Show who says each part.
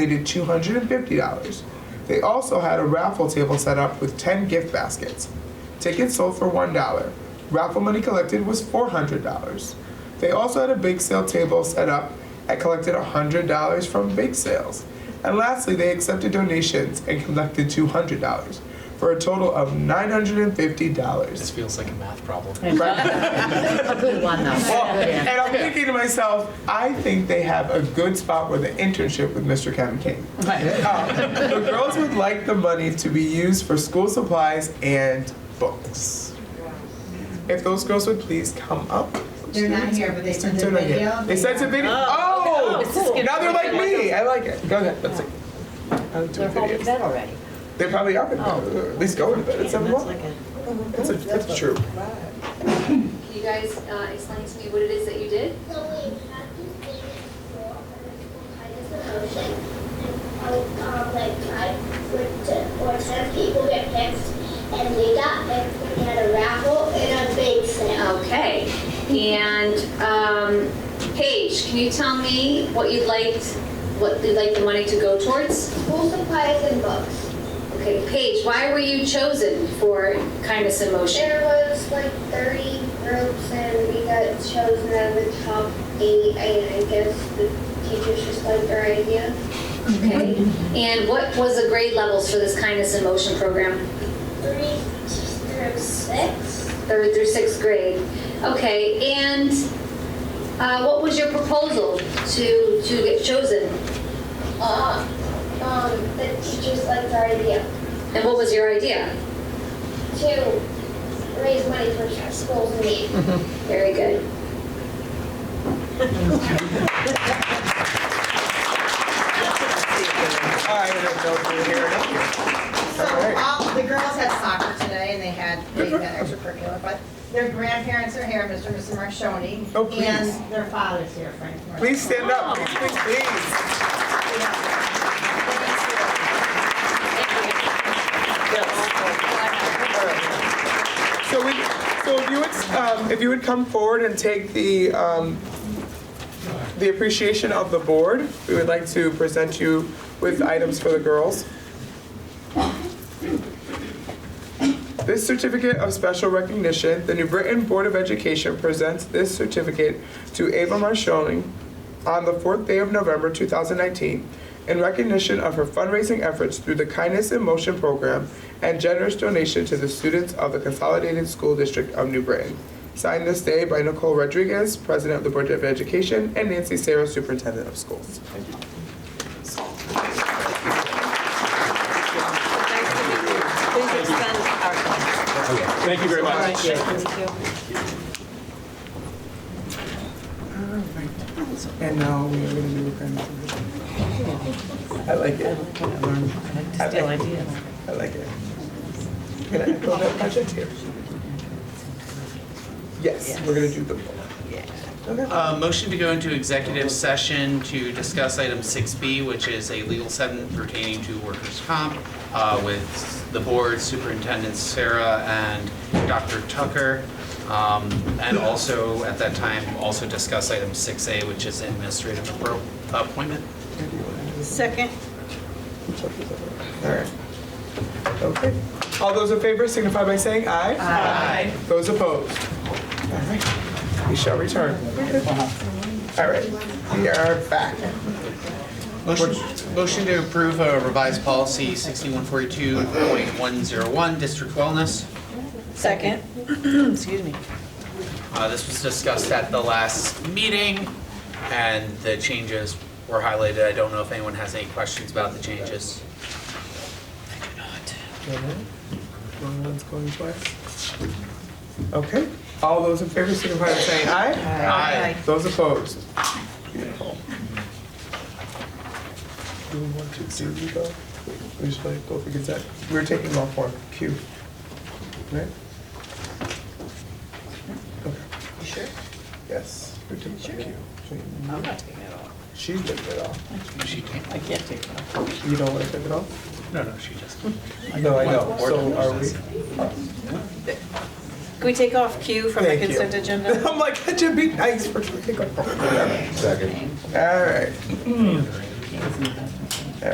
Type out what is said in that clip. Speaker 1: They did $250. They also had a raffle table set up with 10 gift baskets. Tickets sold for $1. Raffle money collected was $400. They also had a bake sale table set up and collected $100 from bake sales. And lastly, they accepted donations and collected $200 for a total of $950.
Speaker 2: This feels like a math problem.
Speaker 1: Right?
Speaker 3: A good one, though.
Speaker 1: Well,
Speaker 3: Good answer.
Speaker 1: and I'm thinking to myself, I think they have a good spot with an internship with Mr. Kevin King. Um, the girls would like the money to be used for school supplies and books. If those girls would please come up.
Speaker 4: They're not here, but they sent
Speaker 1: They're
Speaker 4: a
Speaker 1: not here.
Speaker 4: video.
Speaker 1: They sent a video. Oh, now they're like me. I like it. Go ahead. Let's see. I'll do
Speaker 3: They're home in
Speaker 1: videos.
Speaker 3: bed already.
Speaker 1: They probably are. gonna- At least go to bed at seven o'clock. That's a, that's true.
Speaker 5: Can you guys uh, explain to me what it is that you did?
Speaker 6: So we had this thing for kind of promotion, and um, like five or ten, or ten people get picked, and we got picked. We had a raffle and a bake sale.
Speaker 5: Okay. And um, Paige, can you tell me what you'd like, what you'd like the money to go towards?
Speaker 6: School supplies and books.
Speaker 5: Okay, Paige, why were you chosen for Kindness in Motion?
Speaker 6: There was like thirty groups, and we got chosen out of the top eight. And I guess the teachers just liked our idea.
Speaker 5: Okay. And what was the grade levels for this Kindness in Motion program?
Speaker 6: Three through six.
Speaker 5: Third through sixth grade. Okay. And uh, what was your proposal to to get chosen?
Speaker 6: Uh, um, the teachers liked our idea.
Speaker 5: And what was your idea?
Speaker 6: to raise money for schools in need.
Speaker 5: Very good.
Speaker 1: I don't know if you're here or not.
Speaker 4: So all, the girls had soccer today and they had, they had extracurricular, but their grandparents are here, Mr. and Mrs. Marshoni.
Speaker 1: Oh, please.
Speaker 4: And their father's here, Frank. Marshoni.
Speaker 1: Please stand up, please, please, please. So we, so if you would, um, if you would come forward and take the, um, the appreciation of the board, we would like to present you with items for the girls. This certificate of special recognition, the New Britain Board of Education presents this certificate to Ava Marshoni on the fourth day of November 2019 in recognition of her fundraising efforts through the Kindness in Motion program and generous donation to the students of the Consolidated School District of New Britain. Signed this day by Nicole Rodriguez, President of the Board of Education, and Nancy Sarah, Superintendent of Schools.
Speaker 7: Please extend our thanks.
Speaker 1: Thank you very much. And now we are going to do a kind of. I like it. I
Speaker 7: Steal
Speaker 1: like it.
Speaker 7: ideas.
Speaker 1: I like it. Can I echo that project here? Yes, we're going to do the poll.
Speaker 2: Uh, Motion to go into executive session to discuss item 6B, which is a legal settlement pertaining to workers' comp uh, with the board superintendent Sarah and Dr. Tucker. Um, And also, at that time, also discuss item 6A, which is administrative appro- appointment.
Speaker 7: Second.
Speaker 1: All right. Okay. All those in favor signify by saying aye. Aye. Those opposed? All right. We shall return. All right. We are back.
Speaker 2: Motion motion to approve uh, revised policy 6142.101, district wellness.
Speaker 7: Second. Excuse me.
Speaker 2: Uh, This was discussed at the last meeting, and the changes were highlighted. I don't know if anyone has any questions about the changes.
Speaker 1: Going once, going twice. Okay. All those in favor signify by saying aye.
Speaker 2: Aye.
Speaker 1: Those opposed? Beautiful. Do we want to, do we go? We just like go for Gazette. We're taking off one, Q. Right? Okay.
Speaker 7: You sure?
Speaker 1: Yes. We're taking Q.
Speaker 7: I'm not taking it off.
Speaker 1: She's taking it off.
Speaker 2: She can't.
Speaker 7: I can't take it off.
Speaker 1: You don't want to take it off?
Speaker 2: No, no, she just.
Speaker 1: No, I know. So are we?
Speaker 7: Can we take off Q from the
Speaker 1: Thank you.
Speaker 7: consent agenda?
Speaker 1: I'm like, that should be nice for. Second. All right.